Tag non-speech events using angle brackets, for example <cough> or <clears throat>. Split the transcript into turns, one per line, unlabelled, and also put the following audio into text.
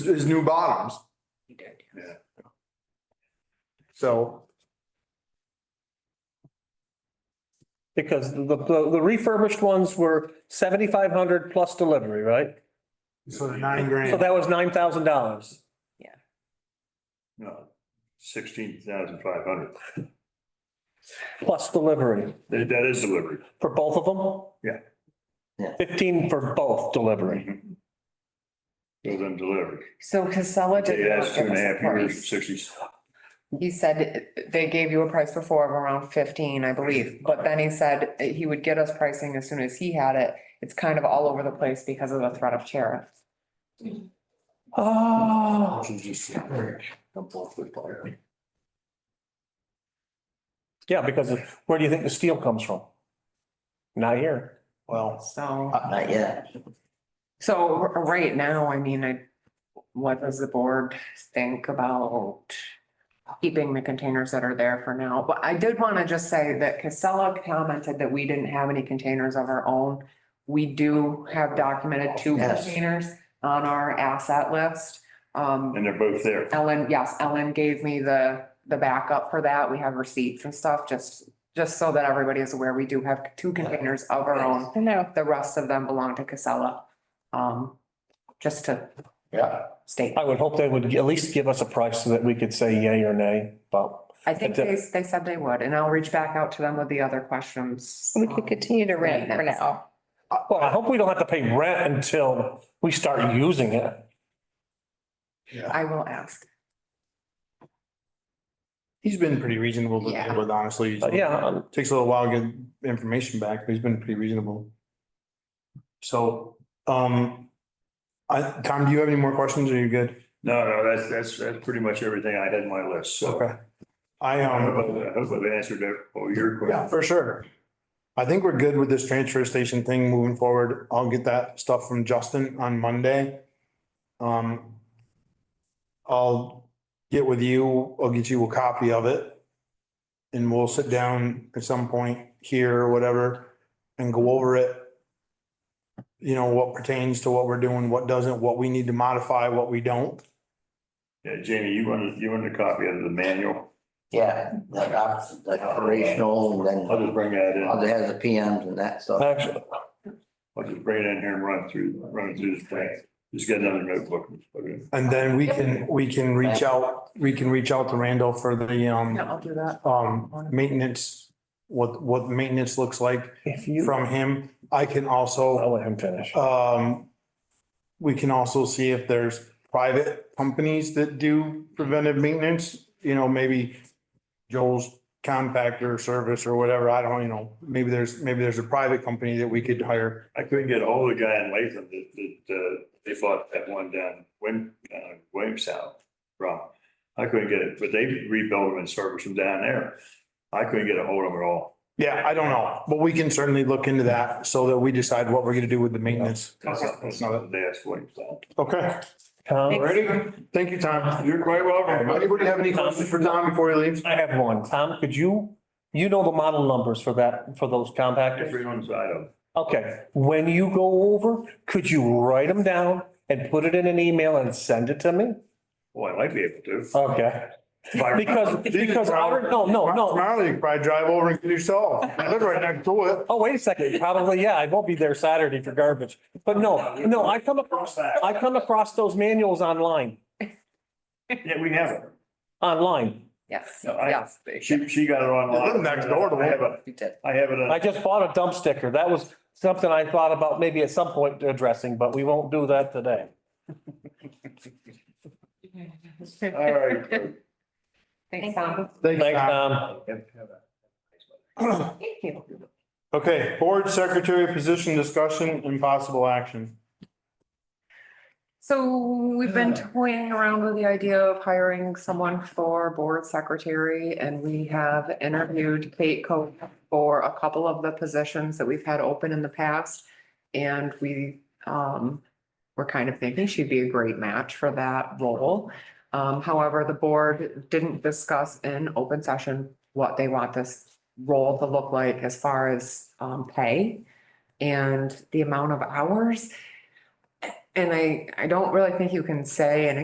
his new bottoms.
He did.
So
Because the, the the refurbished ones were seventy-five hundred plus delivery, right?
so the nine grand.
So that was nine thousand dollars.
No, sixteen thousand five hundred.
Plus delivery
That, that is delivery.
for both of them?
Yeah.
Yeah.
Fifteen for both delivery.
So then delivery.
So Casella did.
They
not
asked two and a
give us
half
price.
years, sixty.
He said they gave you a price before of around fifteen, I believe, but then he said he would get us pricing as soon as he had it. It's kind of all over the place because of the threat of tariff.
Oh, yeah, because where do you think the steel comes from? Not here.
Well,
So,
not yet.
so r- right now, I mean, I, what does the board think about keeping the containers that are there for now? But I did want to just say that Casella commented that we didn't have any containers of our own. We do have documented two
Yes.
containers on our asset list. Um,
And they're both there.
Ellen, yes, Ellen gave me the, the backup for that. We have receipts and stuff, just, just so that everybody is aware, we do have two containers of our own.
No,
The rest of them belong to Casella. Um, just to
Yeah.
state.
I would hope they would at least give us a price so that we could say yay or nay, but
I think they, they said they would, and I'll reach back out to them with the other questions. um,
we could continue to rent for now.
well, I hope we don't have to pay rent until we start using it.
I will ask.
He's been pretty reasonable to
Yeah.
deal with, honestly.
But yeah, um,
Takes a little while to get information back, but he's been pretty reasonable. So, um, I, Tom, do you have any more questions? Are you good?
No, no, that's, that's, that's pretty much everything I had in my list, so.
Okay. I,
I
um,
hope I hope I've answered that, all your
Yeah,
questions.
for sure. I think we're good with this transfer station thing moving forward. I'll get that stuff from Justin on Monday. Um, I'll get with you, I'll get you a copy of it. And we'll sit down at some point here or whatever and go over it. You know, what pertains to what we're doing, what doesn't, what we need to modify, what we don't.
Yeah, Jamie, you wanted, you wanted a copy of the manual?
Yeah, like op, like operational and
I'll
then
just bring that in.
other has the PMs and that stuff.
actually,
I'll just bring it in here and run through, run through this thing. Just get another notebook. and put it in.
And then we can, we can reach out, we can reach out to Randall for the, um.
Yeah, I'll do that.
um, maintenance, what, what maintenance looks like
if you,
from him. I can
I'll
also,
let him finish.
um, we can also see if there's private companies that do preventive maintenance, you know, maybe Joel's compactor service or whatever. I don't, you know, maybe there's, maybe there's a private company that we could hire.
I couldn't get hold of the guy in Latham that, that, uh, they bought that one down Wim, uh, Williamstown from. I couldn't get it, but they rebuilt them and serviced them down there. I couldn't get a hold of them at all.
Yeah, I don't know, but we can certainly look into that so that we decide what we're gonna do with the maintenance.
That's not, that's not what they asked Williamstown.
Okay,
Tom?
ready? Thank you, Tom.
You're quite welcome.
Anybody have any questions for Tom before he leaves?
I have one. Tom, could you, you know the model numbers for that, for those compactors?
Every one side of them.
Okay, when you go over, could you write them down and put it in an email and send it to me?
Well, oh, I might be able to.
Okay, Uh, because, because our, no,
Oh,
no, no.
Tomorrow you could probably drive over and get yourself. I live right next to it.
Oh, wait a second, probably, yeah, I won't be there Saturday for garbage. But no, no, I come across, I come across those manuals online,
Yeah, we have it.
online.
Yes,
No, I-
yes.
She, she got it
You
online.
live next door to
I have it,
You did.
I have it. on-
I just bought a dump sticker. That was something I thought about maybe at some point addressing, but we won't do that today.
All
<laughs>
right.
Thanks, Tom.
Thanks,
Thanks,
Tom.
Tom.
Thank you.
<clears throat> Okay, board secretary position discussion and possible action.
So we've been toying around with the idea of hiring someone for board secretary and we have interviewed Kate Coe for a couple of the positions that we've had open in the past. And we, um, were kind of thinking she'd be a great match for that role. Um, however, the board didn't discuss in open session what they want this role to look like as far as, um, pay and the amount of hours. And I, I don't really think you can say an